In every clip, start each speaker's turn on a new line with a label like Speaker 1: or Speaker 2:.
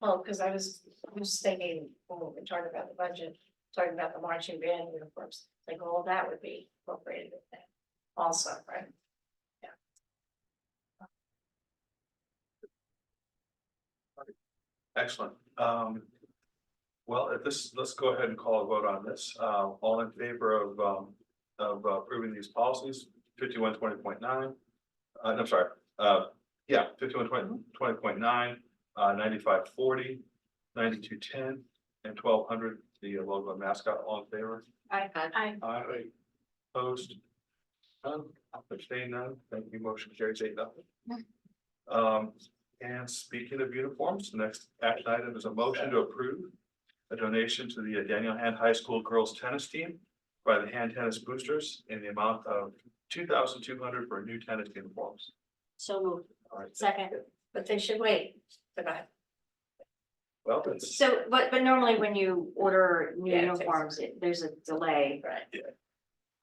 Speaker 1: Well, because I was, I was thinking, when we were talking about the budget, talking about the marching band uniforms, like all that would be incorporated with that also, right?
Speaker 2: Excellent. Um, well, at this, let's go ahead and call a vote on this. Uh, all in favor of, um, of approving these policies, fifty-one twenty point nine. Uh, I'm sorry, uh, yeah, fifty-one twenty, twenty point nine, uh, ninety-five forty, ninety-two ten, and twelve hundred, the logo mascot, all in favor?
Speaker 1: I, I,
Speaker 2: Aye. Opposed? None, abstained none, thank you, motion carries eight nothing. Um, and speaking of uniforms, the next action item is a motion to approve. A donation to the Daniel Hand High School Girls Tennis Team by the Hand Tennis Boosters in the amount of two thousand two hundred for new tennis uniforms.
Speaker 3: So moved.
Speaker 2: All right,
Speaker 1: second, but they should wait for that.
Speaker 2: well, it's,
Speaker 3: So, but, but normally when you order new
Speaker 1: Yeah, it takes-
Speaker 3: uniforms, it- there's a delay.
Speaker 1: Right.
Speaker 2: Yeah.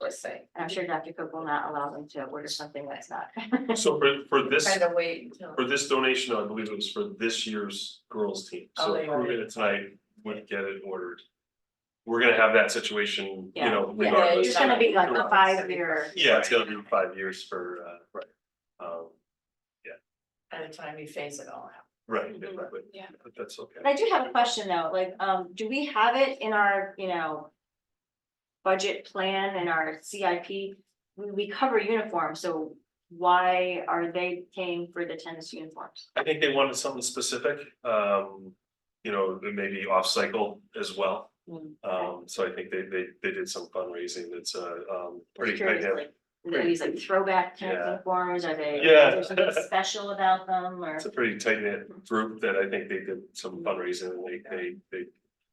Speaker 1: Let's say.
Speaker 3: And I'm sure Dr. Cook will not allow them to order something that's not.
Speaker 4: So for, for this,
Speaker 1: Kind of wait until.
Speaker 4: for this donation, I believe it was for this year's girls team,
Speaker 1: Oh,
Speaker 4: so
Speaker 1: they
Speaker 4: approving it tonight would get it ordered. We're gonna have that situation, you know,
Speaker 3: Yeah, yeah,
Speaker 4: regardless.
Speaker 3: It's gonna be like a
Speaker 4: Regardless.
Speaker 3: five-year,
Speaker 4: Yeah, it's gonna be five years for, uh, right, um,
Speaker 1: By the time you phase it all out.
Speaker 4: right,
Speaker 3: Mhm.
Speaker 4: exactly.
Speaker 1: Yeah.
Speaker 4: But that's okay.
Speaker 3: but I do have a question though, like, um, do we have it in our, you know, budget plan and our CIP? We, we cover uniforms, so why are they paying for the tennis uniforms?
Speaker 4: I think they wanted something specific, um, you know, maybe off-cycle as well.
Speaker 3: Mm,
Speaker 4: Um, so I think they, they, they did some fundraising that's, uh, um, pretty big.
Speaker 3: Curious, like, are they these like throwback tennis
Speaker 4: Yeah.
Speaker 3: uniforms, are they?
Speaker 4: Yeah.
Speaker 3: Is there something special about them or?
Speaker 4: It's a pretty tight knit group that I think they did some fundraising, and they, they,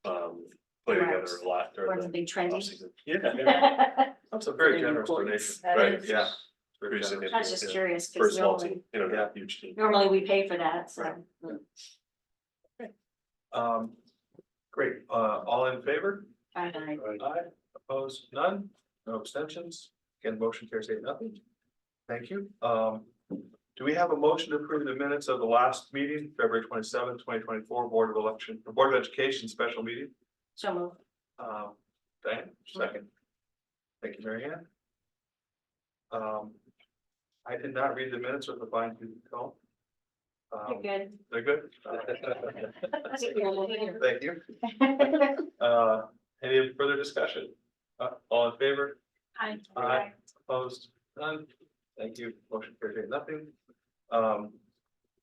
Speaker 4: they, um, play together a lot
Speaker 3: Or
Speaker 4: during the
Speaker 3: something trendy.
Speaker 4: offseason. Yeah,
Speaker 3: I
Speaker 2: that's a very generous donation.
Speaker 1: That
Speaker 4: Right,
Speaker 1: is-
Speaker 4: yeah. Very
Speaker 2: Very generous.
Speaker 4: significant,
Speaker 3: was just
Speaker 4: yeah.
Speaker 3: curious,
Speaker 4: For a
Speaker 3: because
Speaker 4: small
Speaker 3: normally,
Speaker 4: team, you know,
Speaker 2: Yeah.
Speaker 4: not huge team.
Speaker 3: normally we pay for that, so.
Speaker 2: Um, great, uh, all in favor?
Speaker 3: I don't know.
Speaker 2: Aye, opposed, none, no abstentions, again, motion carries eight, nothing. Thank you, um, do we have a motion to approve the minutes of the last meeting, February twenty seventh, twenty twenty four, Board of Election, Board of Education Special Meeting?
Speaker 3: So moved.
Speaker 2: Um, Diane, second. Thank you, Mary Ann. Um, I did not read the minutes with the fine tooth comb.
Speaker 3: You're
Speaker 2: Um,
Speaker 3: good.
Speaker 2: they're good?
Speaker 3: You're
Speaker 2: Thank you,
Speaker 3: good.
Speaker 2: uh, any further discussion? Uh, all in favor? Aye. Opposed, none, thank you, motion carried, eight nothing. Um,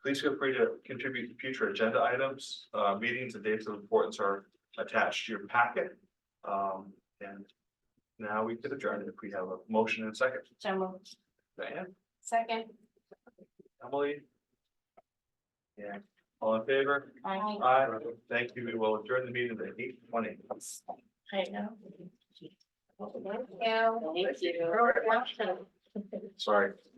Speaker 2: please feel free to contribute to future agenda items, uh, meetings and dates of importance are attached to your packet. Um, and now we could adjourn if we have a motion and a second,
Speaker 3: So moved.
Speaker 2: Diane,
Speaker 1: Second.
Speaker 2: Emily. Yeah, all in favor?
Speaker 3: Aye.
Speaker 2: Aye, thank you, we will adjourn the meeting at eight twenty.
Speaker 1: I know. Thank you. Robert Washington.
Speaker 2: Sorry,